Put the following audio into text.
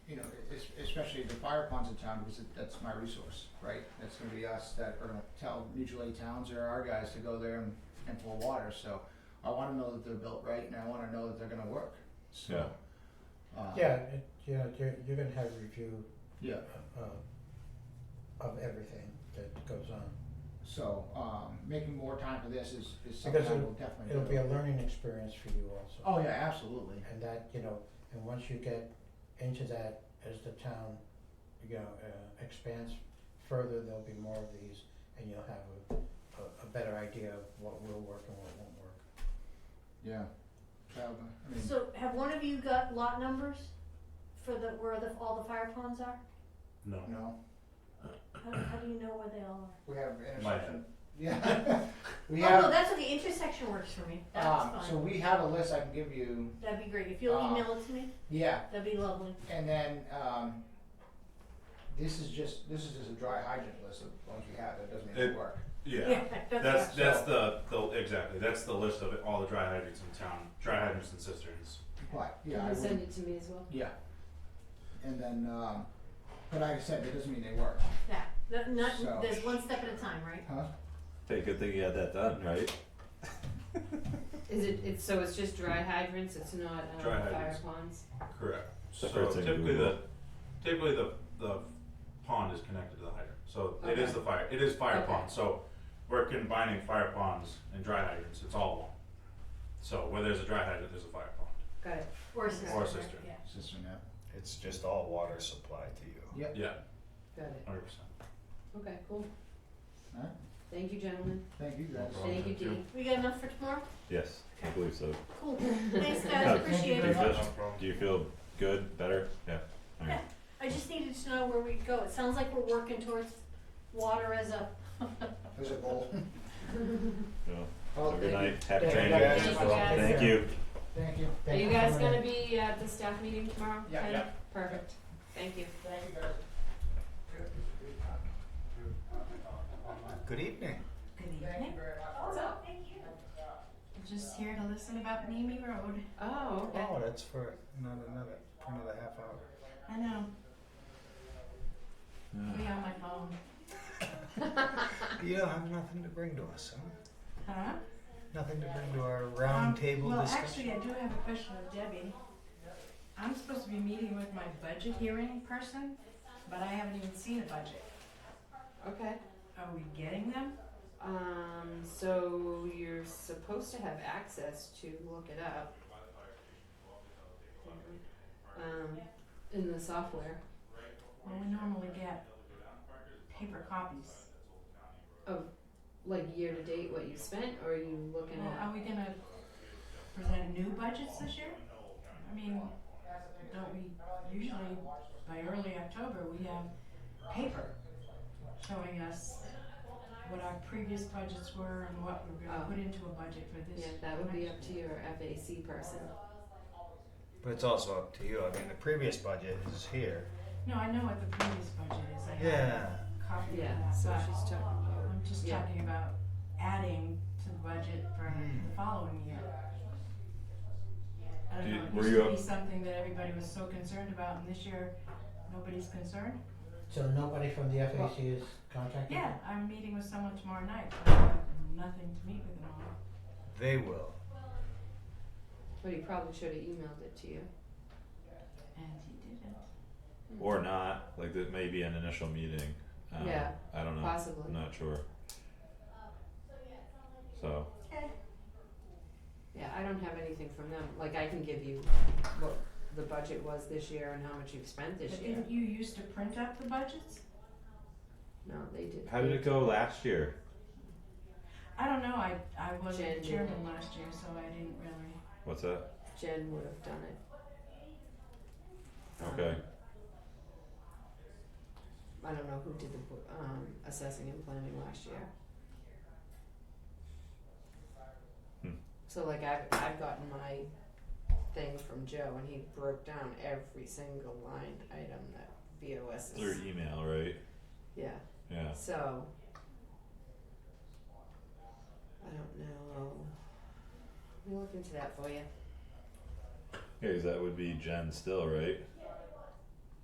e-, especially the fire ponds in town, because it- that's my resource, right? That's gonna be us that are gonna tell mutual aid towns or our guys to go there and, and pull water, so I wanna know that they're built right and I wanna know that they're gonna work, so. uh, Yeah, it, yeah, you're, you're gonna have review, Yeah, uh, of everything that goes on. so, um, making more time for this is, is something Because I it'll- will definitely do. It'll be a learning experience for you also. Oh, yeah, absolutely, And that, you know, and once you get into that, as the town, you know, uh, expands further, there'll be more of these, and you'll have a, a, a better idea of what will work and what won't work. yeah. That'll be- I mean, So have one of you got lot numbers for the, where the, all the fire ponds are? No. no, How, how do you know where they all are? we have My intersection, head. yeah. We Oh, no, have, that's where the intersection works for me, that's um, so fine, we have a list I can give you, that'd be great, if you'll uh, email it to me, yeah, that'd be lovely, And then, um, this is just, this is just a dry hydrant list of ones we have, that doesn't even It- work. Yeah. yeah, That's that's, So- that's the, the exactly that's the list of all the dry hydrants in town. Dry hydrants and cisterns. But, yeah, Can I you send would, it to me as well? yeah. And then, um, but like I said, that doesn't mean they work, that, that, not, So- there's one step at a time, right? huh? Hey, good thing you had that done, right? Is it, it's, so it's just dry hydrants, it's not, um, Dry fire hydrants. ponds? Correct. It's the so first thing typically the Google. typically the the pond is connected to the hydrant. So it is Okay. the fire it is fire Okay. pond. So we're combining fire ponds and dry hydrants. It's all one. So where there's a dry hydrant, there's a fire pond Got it. Or a sister, or a right? cistern. yeah, Sister now. It's just all water supplied to you. Yep, Yeah, Got it. hundred percent. Okay, cool. Alright. Thank you, gentlemen. thank you guys. problem. Thank you, Thank you. Dee. we got enough for tomorrow? Yes, I believe so. Cool, thanks Yeah, guys, appreciate it, Do you much. feel, No problem. do you feel good, better? Yeah. All right. I just needed to know where we go, it sounds like we're working towards water as a, There's a bowl. Well, Oh, have a thank you, good night. Happy Thank training. you day. guys. Thank you guys. Thank you. thank you. Are Thank you for guys coming in. gonna be at the staff meeting tomorrow? Yeah, Ken? yeah. Perfect. Thank you. Thank you guys. Good evening. Good Thank you evening. Oh, very much. What's up? thank you. Just here to listen about Mamie Road. Oh, okay. Oh, that's for not another for another half hour. I know. Be on my phone. You don't have nothing to bring to us, huh? Huh? Nothing to bring to our Um, round table Well, discussion. actually, I do have a question of Debbie. I'm supposed to be meeting with my budget hearing person, but I haven't even seen a budget. Okay. Are we getting them? Um, so you're supposed to have access to look it up. Um, in the software Well, we normally get paper copies. of like year to date what you spent, or are you looking Well, at? are we gonna present new budgets this year? I mean, don't we, usually by early October, we have paper showing us what our previous budgets were and what we're gonna Oh. put into a budget for this. Yeah, that would be next up to year. your FAC person. But it's also up to you. I mean, the previous budget is here. No, I know what the previous budget is, I have Yeah. a copy of Yeah, that, so but she's talking about. I'm just Yeah. talking about adding to the budget for Hmm. the following year. I don't Do- know, it were used you to up- be something that everybody was so concerned about, and this year, nobody's concerned. So nobody from the FAC is contacting? Yeah, I'm meeting with someone tomorrow night, but I have nothing to meet with them on. They will. But he probably should have emailed it to you. And he didn't. Or not. Like that may be an initial meeting. Um, Yeah, I don't know. possibly. I'm not sure. So Yeah, I don't have anything from them. Like I can give you what the budget was this year and how much you've spent this But year. didn't you used to print out the budgets? No, they did. how did it go last year? I don't know, I, I wasn't Jen the did chairman it. last year, so I didn't really. What's that? Jen would have done it. Um, Okay. I don't know who did the bo- um, assessing and planning last year. Hmm. So like I've I've gotten my thing from Joe and he broke down every single line item that VOS is. Through email, right? Yeah. Yeah. So I don't know. Let me look into that for you. Yeah, 'cause that would be Jen still, right?